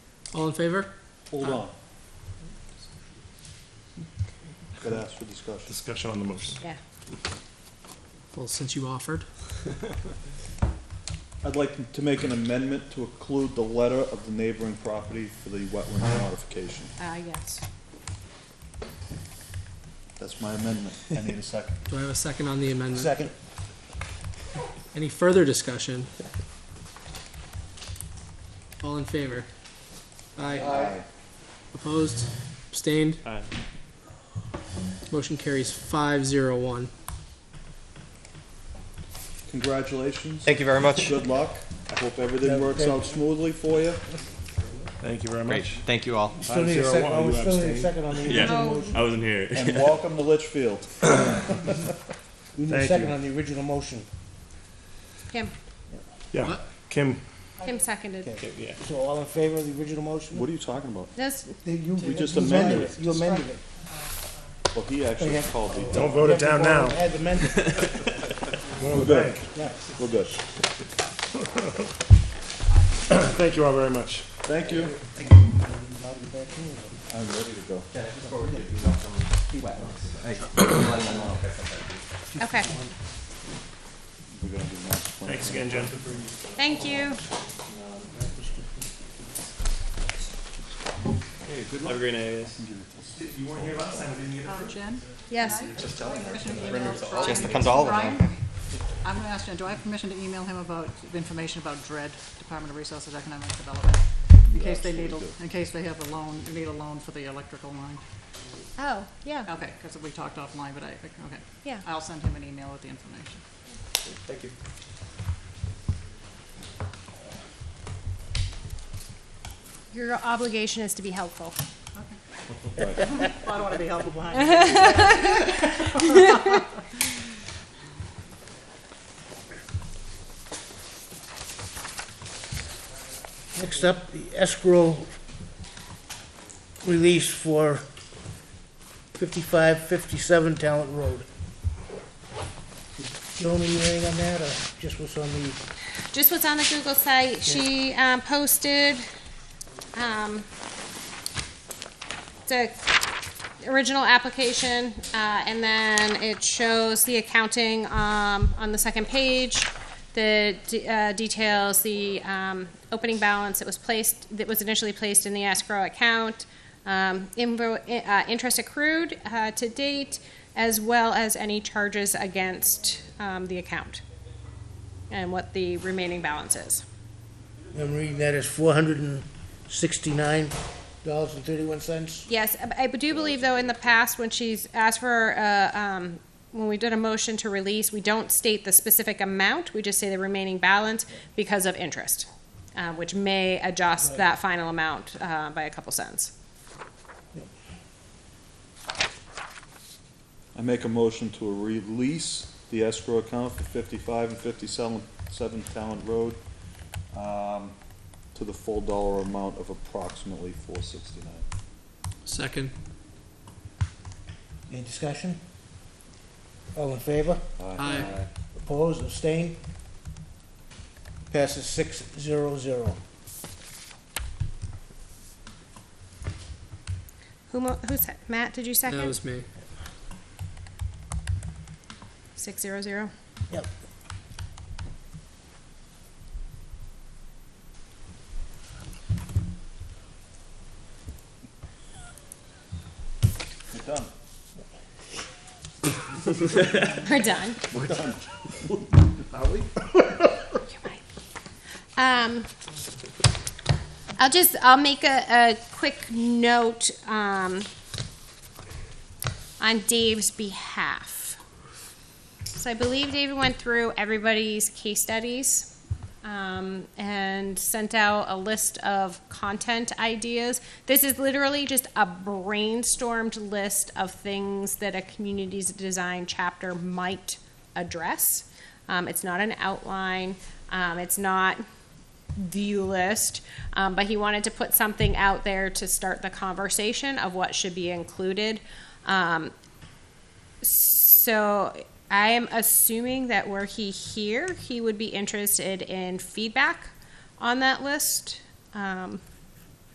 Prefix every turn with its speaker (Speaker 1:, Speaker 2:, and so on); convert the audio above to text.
Speaker 1: All in favor?
Speaker 2: Hold on. Gotta ask for discussion.
Speaker 3: Discussion on the motion.
Speaker 4: Yeah.
Speaker 1: Well, since you offered.
Speaker 2: I'd like to make an amendment to include the letter of the neighboring property for the wetland modification.
Speaker 4: Uh, yes.
Speaker 2: That's my amendment. I need a second.
Speaker 1: Do I have a second on the amendment?
Speaker 2: Second.
Speaker 1: Any further discussion? All in favor? Aye.
Speaker 2: Aye.
Speaker 1: Opposed? Abstained?
Speaker 3: Aye.
Speaker 1: Motion carries five zero one.
Speaker 2: Congratulations.
Speaker 5: Thank you very much.
Speaker 2: Good luck. I hope everything works out smoothly for you.
Speaker 3: Thank you very
Speaker 5: Great,
Speaker 3: much.
Speaker 5: thank you all.
Speaker 6: Still need a
Speaker 3: Five zero
Speaker 6: second,
Speaker 3: one,
Speaker 6: oh, we
Speaker 3: you
Speaker 6: still need a
Speaker 3: abstain.
Speaker 6: second on the original
Speaker 4: No.
Speaker 6: motion.
Speaker 3: I wasn't here.
Speaker 2: And welcome to Litchfield.
Speaker 6: We need
Speaker 3: Thank
Speaker 6: a
Speaker 3: you.
Speaker 6: second on the original motion.
Speaker 4: Kim,
Speaker 3: Yeah,
Speaker 1: What?
Speaker 3: Kim.
Speaker 4: Kim seconded.
Speaker 6: Okay. So all in favor of the original motion?
Speaker 2: What are you talking about?
Speaker 4: This,
Speaker 6: They- you-
Speaker 2: We just
Speaker 6: you
Speaker 2: amended it.
Speaker 6: You amended it.
Speaker 2: Well, he actually called the.
Speaker 3: Don't vote it down now.
Speaker 6: Had amended,
Speaker 2: We're good.
Speaker 6: yeah.
Speaker 2: We're good.
Speaker 3: Thank you all very much.
Speaker 2: Thank you.
Speaker 6: I'll be back in.
Speaker 2: I'm ready to go.
Speaker 4: okay,
Speaker 2: We're gonna do master plan.
Speaker 3: Thanks again, Jen.
Speaker 4: thank you.
Speaker 7: Have a great night, guys.
Speaker 8: Jen,
Speaker 4: Yes,
Speaker 8: permission to email Brian?
Speaker 5: Just comes all of them.
Speaker 8: Brian, I'm gonna ask Jen, do I have permission to email him about the information about DRED, Department of Resources Economic Development? In case they need, a- in case they have a loan, need a loan for the electrical line?
Speaker 4: oh, yeah,
Speaker 8: Okay, because we talked offline, but I, okay.
Speaker 4: Yeah.
Speaker 8: I'll send him an email with the information.
Speaker 4: your obligation is to be helpful.
Speaker 8: I don't want to be held behind.
Speaker 6: Next up, the escrow release for fifty-five, fifty-seven Talent Road. Joan, are you hearing on that, or just what's on the?
Speaker 4: just what's on the Google site. She um, posted um, the original application, uh, and then it shows the accounting um, on the second page. The de- uh, details, the um, opening balance that was placed, that was initially placed in the escrow account, um, invo- uh, interest accrued uh, to date, as well as any charges against um, the account and what the remaining balance is.
Speaker 6: I'm reading that as four hundred and sixty-nine dollars and thirty-one cents.
Speaker 4: Yes, I I do believe, though, in the past, when she's asked for, uh, um, when we did a motion to release, we don't state the specific amount, we just say the remaining balance because of interest, uh, which may adjust that final amount uh, by a couple cents.
Speaker 2: I make a motion to release the escrow account for fifty-five and fifty-seven, seven Talent Road, um, to the full dollar amount of approximately four sixty-nine.
Speaker 1: Second.
Speaker 6: Any discussion? All in favor?
Speaker 1: Aye.
Speaker 6: Opposed, abstained? Passes six zero zero.
Speaker 4: Who, mo- who said, Matt, did you
Speaker 1: That
Speaker 4: second?
Speaker 1: was me.
Speaker 4: Six zero zero?
Speaker 6: Yep.
Speaker 2: We're done.
Speaker 4: We're done.
Speaker 2: We're done.
Speaker 4: You're right. Um, I'll just, I'll make a, a quick note, um, on Dave's behalf. So I believe David went through everybody's case studies, um, and sent out a list of content ideas. This is literally just a brainstormed list of things that a community's design chapter might address. Um, it's not an outline, um, it's not view list, um, but he wanted to put something out there to start the conversation of what should be included. Um, so I am assuming that were he here, he would be interested in feedback on that list. Um,